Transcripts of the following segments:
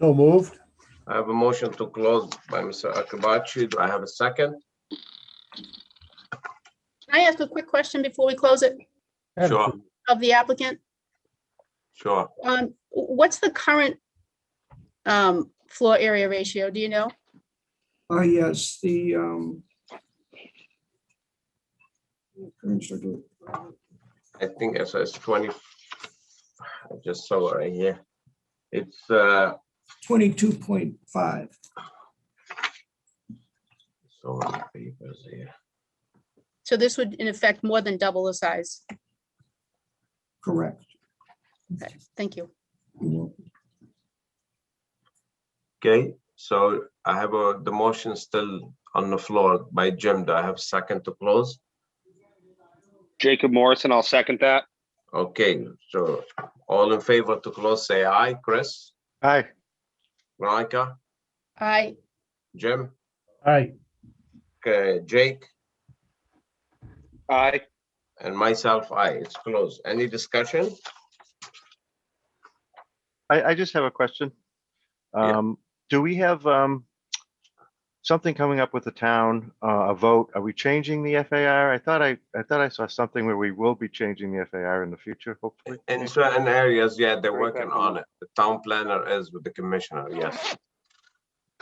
So moved. I have a motion to close by Mr. Akabachi. Do I have a second? Can I ask a quick question before we close it Sure, of the applicant? sure. Um, what's the current um, floor area ratio? Do you know? Ah, yes, the, um. current schedule. I think it's it's 20. I just saw it right here. It's, uh, Twenty-two point five. so many papers here. So this would in effect more than double the size. correct. Okay, thank you. Mm-hmm. Okay, so I have a, the motion still on the floor by Jim. Do I have a second to close? Jacob Morrison, I'll second that. Okay, so all in favor to close, say aye. Chris, Aye. Veronica, I, Jim, Aye. okay, Jake? Aye. And myself, I. It's closed. Any discussion? I, I just have a question. Yeah. Um, do we have, um, something coming up with the town, uh, a vote? Are we changing the FAR? I thought I, I thought I saw something where we will be changing the FAR in the future, hopefully. In certain areas, yeah, they're Very working careful. on it. The town planner is with the commissioner, yes.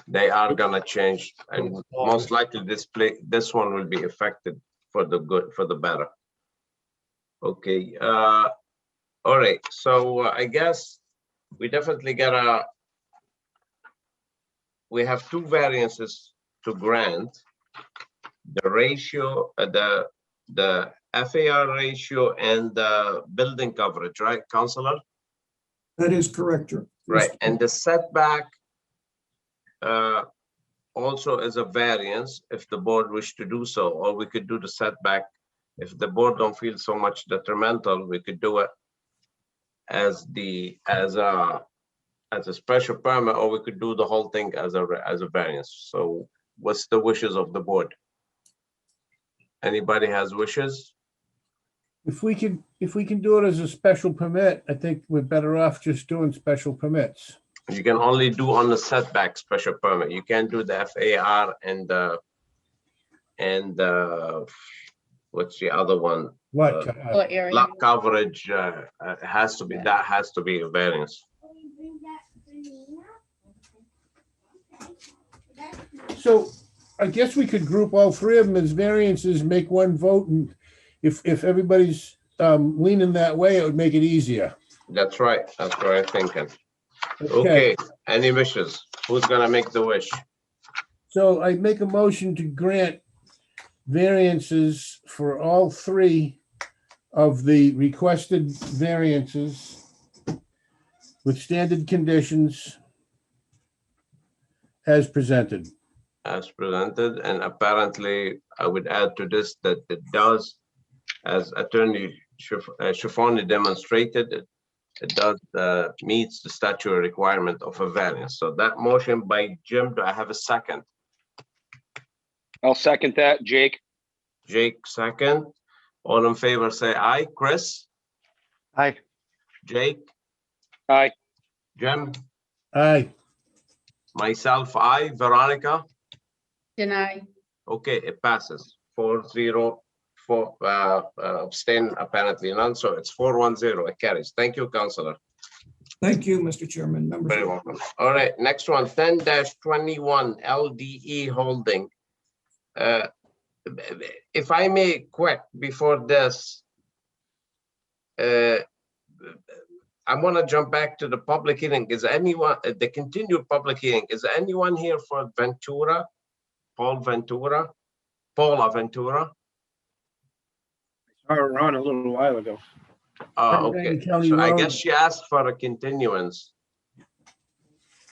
They are gonna change and most likely this play, this one will be affected for the good, for the better. Okay, uh, all right, so uh, I guess we definitely gotta we have two variances to grant. The ratio, uh, the, the FAR ratio and the building coverage, right, Counselor? That is correct, Jer- Right, and the setback uh, also is a variance if the board wish to do so, or we could do the setback. If the board don't feel so much detrimental, we could do it as the, as a, as a special permit, or we could do the whole thing as a, re- as a variance. So what's the wishes of the board? Anybody has wishes? If we can, if we can do it as a special permit, I think we're better off just doing special permits. You can only do on the setback special permit. You can't do the FAR and the, and uh what's the other one? What? Uh, uh, floor area. Lot coverage, uh, uh, has to be, that has to be a variance. uh, So I guess we could group all three of them as variances, make one vote, and if, if everybody's um, leaning that way, it would make it easier. That's right. That's what I'm thinking. Okay, any wishes? Who's gonna make the wish? So I make a motion to grant variances for all three of the requested variances with standard conditions as presented. as presented, and apparently I would add to this that it does, as Attorney Schif- uh, Schifani demonstrated, it- it does uh, meets the statutory requirement of a variance. So that motion by Jim, do I have a second? I'll second that. Jake? Jake, second. All in favor, say aye. Chris, Aye. Jake, Aye. Jim, Aye, myself, aye. Veronica? Deny. Okay, it passes. Four zero, four, uh, uh, abstain apparently none, so it's four one zero, it carries. Thank you, Counselor. Thank you, Mr. Chairman, members. Very welcome. All right, next one, ten twenty-one LDE Holding. Uh, If I may, quick, before this. uh, I want to jump back to the public hearing. Is anyone, uh, the continued public hearing, is anyone here for Ventura? Paul Ventura? Paula Ventura? All around a little while ago. Oh, Pendleton okay. County So I Road. guess she asked for a continuance.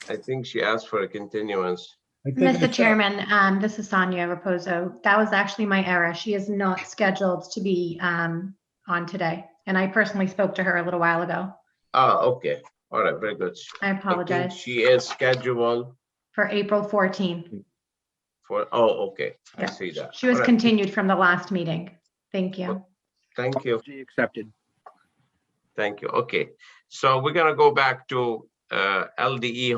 I think she asked for a continuance. I think Mr. Chairman, um, this is Sonia Raposo. That was actually my error. She is not scheduled to be, um, on today. And I personally spoke to her a little while ago. Ah, okay. All right, very good. I I think apologize She is scheduled for April 14. for, oh, okay, I Yeah. see that. She was All right, continued from the last meeting. Thank you. Thank you, She accepted. thank you. Okay, so we're gonna go back to uh, LDE